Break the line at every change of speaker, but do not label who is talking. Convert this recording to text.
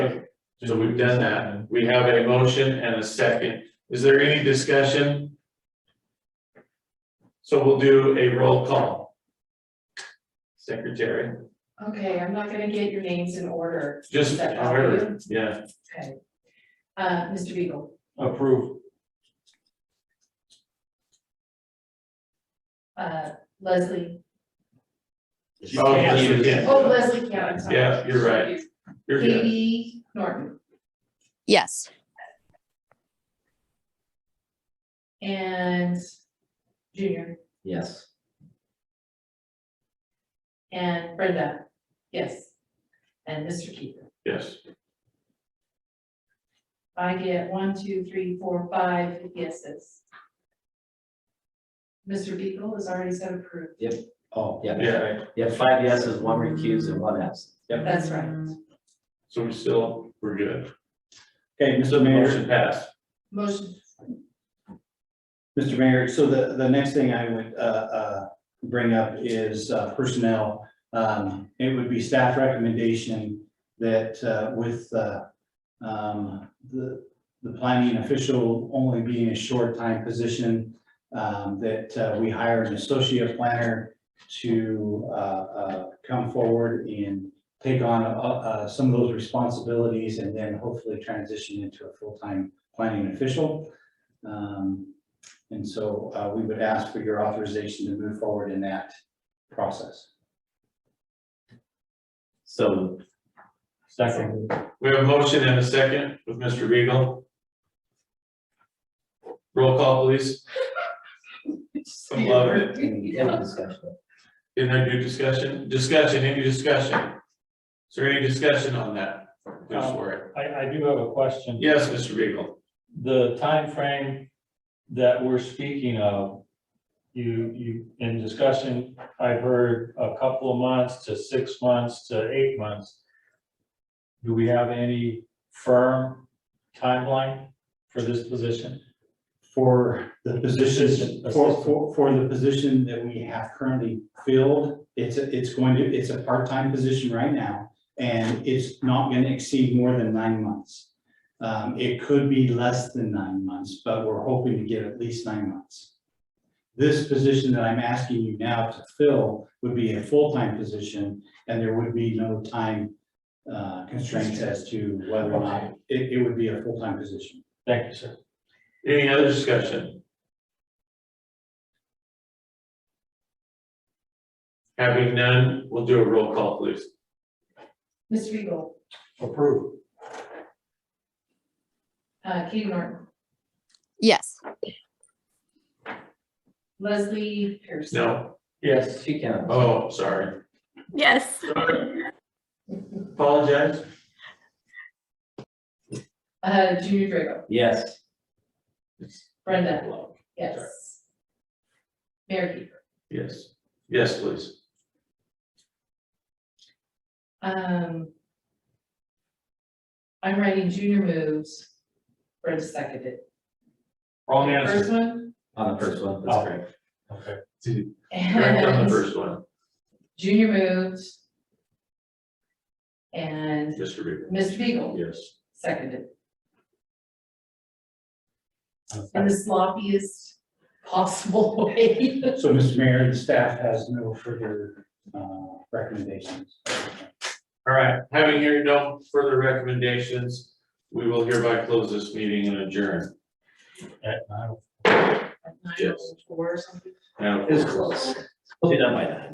So we've done that. We have a motion and a second. Is there any discussion? So we'll do a roll call. Secretary,
Okay, I'm not gonna get your names in order.
just, however, yeah,
Okay. Uh, Mr. Beagle,
Approve.
uh, Leslie,
Oh, yes, yes.
oh, Leslie County. I'm sorry.
Yeah, you're right. you're good.
Katie Norton
Yes.
and Junior
Yes.
and Brenda, yes. And Mr. Keeper.
Yes,
I get one, two, three, four, five yeses. Mr. Beagle is already so approved.
Oh, yeah.
yeah,
You have five yeses, one recused and one absent. Yep.
That's right.
so we still, we're good.
Okay, Mr. Mayor,
Motion passed.
Motion,
Mr. Mayor, so the, the next thing I would, uh, uh, bring up is uh, personnel. Um, it would be staff recommendation that, uh, with, uh, um, the, the planning official only being a short-time position, um, that, uh, we hire an associate planner to, uh, uh, come forward and take on, uh, uh, some of those responsibilities and then hopefully transition into a full-time planning official. Um, and so uh, we would ask for your authorization to move forward in that process.
So. Second.
We have a motion and a second with Mr. Beagle. Roll call, please. Some love.
Any any discussion?
Didn't I do discussion? Discussion, any discussion? Is there any discussion on that? Go for it.
I, I do have a question.
Yes, Mr. Beagle.
The timeframe that we're speaking of, you, you, in discussion, I've heard a couple of months to six months to eight months. Do we have any firm timeline for this position?
For the position,
Assistant.
for, for, for the position that we have currently filled, it's, a- it's going to, it's a part-time position right now. And it's not going to exceed more than nine months. Um, It could be less than nine months, but we're hoping to get at least nine months. This position that I'm asking you now to fill would be a full-time position and there would be no time uh, constraints as to whether or not, it, it would be a full-time position.
Thank you, sir.
Any other discussion? Having none, we'll do a roll call, please.
Mr. Beagle,
Approved.
uh, Katie Norton,
Yes.
Leslie Pierce.
No,
Yes.
She can.
oh, sorry.
Yes,
Apologize.
Uh, Junior Drago,
Yes.
Brenda, yes. Mayor Keeper.
Yes, yes, please.
Um. I'm writing Junior moves, Brenda seconded.
Wrong answer.
First one,
On the first one, that's
Oh.
correct.
Okay.
Correct on the
and
first one,
Junior moved. And
Mr. Beagle.
Mr. Beagle
Yes.
seconded. In the sloppiest possible way.
So, Mr. Mayor, the staff has no further uh, recommendations.
All right, having here no further recommendations, we will hereby close this meeting and adjourn.
At nine.
Nine oh four or something.
Now,
It was close. We'll be done by then.